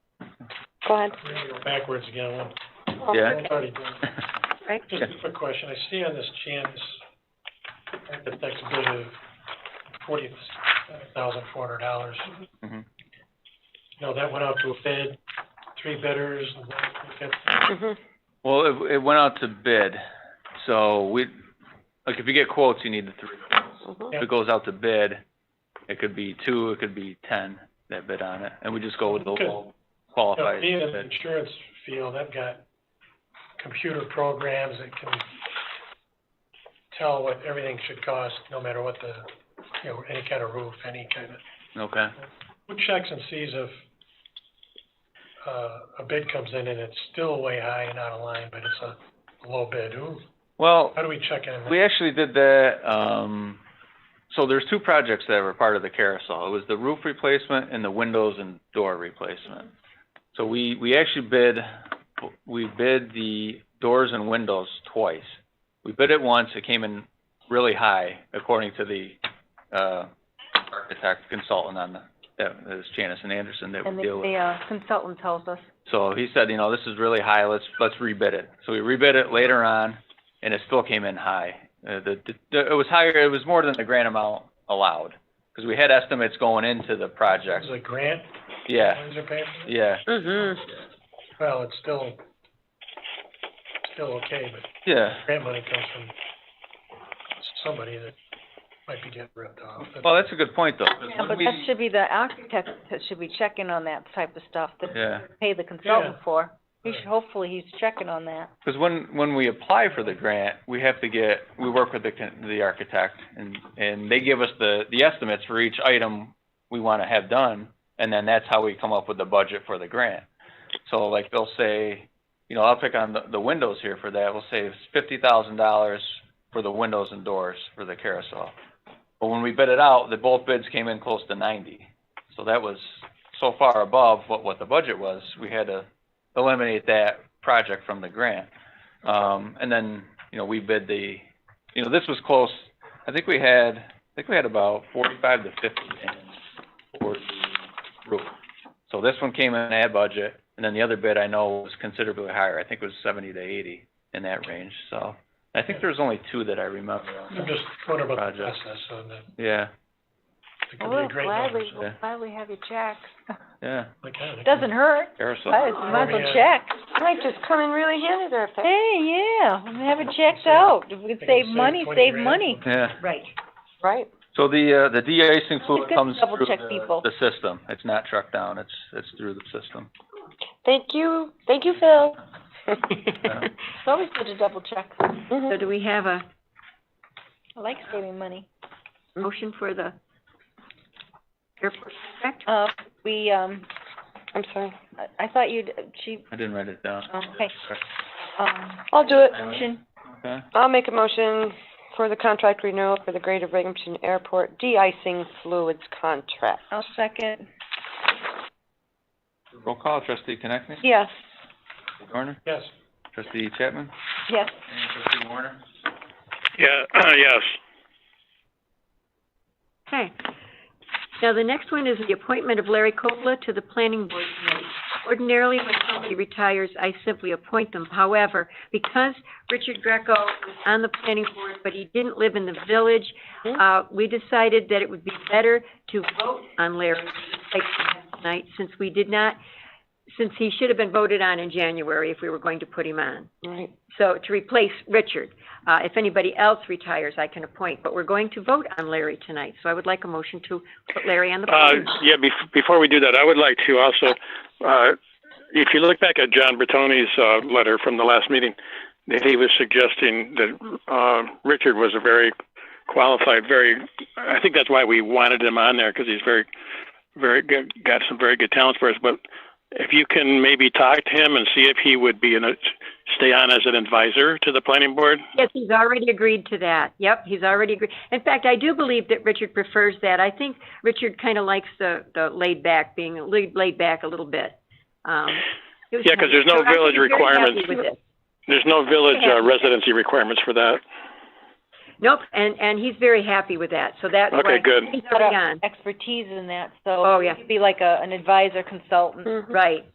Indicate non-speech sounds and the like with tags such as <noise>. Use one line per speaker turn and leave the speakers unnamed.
Go ahead.
We're gonna go backwards again, one,
Oh,
Yeah.
okay.
already done.
Right.
Just a quick question, I see on this Jan's architect's bid of forty thousand four hundred dollars.
Mhm.
You know, that went out to a bid, three bidders, and that,
Mhm.
Well, it, it went out to bid, so we, like, if you get quotes, you need the three.
Mhm.
If it goes out to bid, it could be two, it could be ten that bid on it, and we just go with the
Okay.
low
you know,
qualified
being in the
bid.
insurance field, I've got computer programs that can tell what everything should cost, no matter what the, you know, any kind of roof, any kind of
Okay,
Who checks and sees if, uh, a bid comes in and it's still way high and out of line, but it's a low bid? Who,
well,
how do we check in?
we actually did that, um, so there's two projects that were part of the carousel. It was the roof replacement and the windows and door replacement. So we, we actually bid, we bid the doors and windows twice. We bid it once, it came in really high, according to the, uh, architect consultant on the, that is Janice and Anderson that
And
we
the,
deal with.
the uh, consultant tells us.
So he said, you know, this is really high, let's, let's rebid it. So we rebid it later on, and it still came in high. Uh, the, the, it was higher, it was more than the grant amount allowed, because we had estimates going into the project.
Is it a grant?
Yeah,
Windsor paid for it?
yeah,
Mm-hmm.
Mhm.
Well, it's still, still okay, but
yeah.
grant money comes from somebody that might be getting ripped off.
Well, that's a good point, though. 'cause
Yeah,
when
but
we-
that should be the architect that should be checking on that type of stuff that
Yeah,
we pay the consultant for. He
Right.
should, hopefully he's checking on that.
because when, when we apply for the grant, we have to get, we work with the, con- the architect, and, and they give us the, the estimates for each item we want to have done, and then that's how we come up with the budget for the grant. So like, they'll say, you know, I'll pick on the, the windows here for that, we'll say it's fifty thousand dollars for the windows and doors for the carousel. But when we bid it out, the both bids came in close to ninety, so that was so far above what, what the budget was, we had to eliminate that project from the grant. Um, and then, you know, we bid the, you know, this was close, I think we had, I think we had about forty-five to fifty in for the roof. So this one came in at budget, and then the other bid I know was considerably higher, I think it was seventy to eighty in that range, so. I think there was only two that I remember.
I'm just wondering about the
Project.
process, so that,
Yeah,
it could be
We'll
a great number,
gladly,
so,
we'll
yeah.
gladly have you check.
yeah,
like, I don't know.
<laughs> Doesn't hurt,
carousel.
but might as well
Yeah.
check.
Might just come in really handy there if that.
Hey, yeah, have it checked
Save-
out. If we can
They can
save money,
20
save
grand.
money.
Yeah.
Right.
Right.
So the, uh, the de-icing fluid
It's good to
comes
double
through
check people.
the, the system. It's not trucked down, it's, it's through the system.
Thank you, thank you, Phil.
It's always good to double check.
<laughs> So
Mhm.
do we have a
I like saving money.
motion for the airport contract?
Uh, we, um,
I'm sorry.
I- I thought you'd, she,
I didn't write it down.
okay, um,
I'll do it.
motion,
Okay.
I'll make a motion for the contract renewal for the Greater Binghamton Airport de-icing fluids contract.
I'll second.
Roll call, trustee Connectney?
Yes.
Garner?
Yes.
Trustee Chapman?
Yes.
And trustee Warner?
Yeah, yes.
Okay. Now, the next one is the appointment of Larry Coppola to the planning board committee. Ordinarily, when somebody retires, I simply appoint them. However, because Richard Greco was on the planning board, but he didn't live in the village, uh, we decided that it would be better to vote on Larry like tonight, since we did not, since he should have been voted on in January if we were going to put him on.
Right.
So to replace Richard, uh, if anybody else retires, I can appoint, but we're going to vote on Larry tonight, so I would like a motion to put Larry on the
Uh,
board.
yeah, bef- before we do that, I would like to also, uh, if you look back at John Bertoni's, uh, letter from the last meeting, that he was suggesting that, uh, Richard was a very qualified, very, I think that's why we wanted him on there, because he's very, very good, got some very good talents for us, but if you can maybe talk to him and see if he would be in a, stay on as an advisor to the planning board,
Yes, he's already agreed to that. Yep, he's already agreed. In fact, I do believe that Richard prefers that. I think Richard kind of likes the, the laid back, being laid, laid back a little bit. Um, he was-
Yeah, 'cause there's no
so I think
village
he's very happy
requirements.
with this.
there's no village, uh, residency requirements for that.
Nope, and, and he's very happy with that, so that's
Okay,
why
good.
he's already on.
Expertise in that, so.
Oh, yeah.
He'd be like a, an advisor consultant.
Mhm.
Right,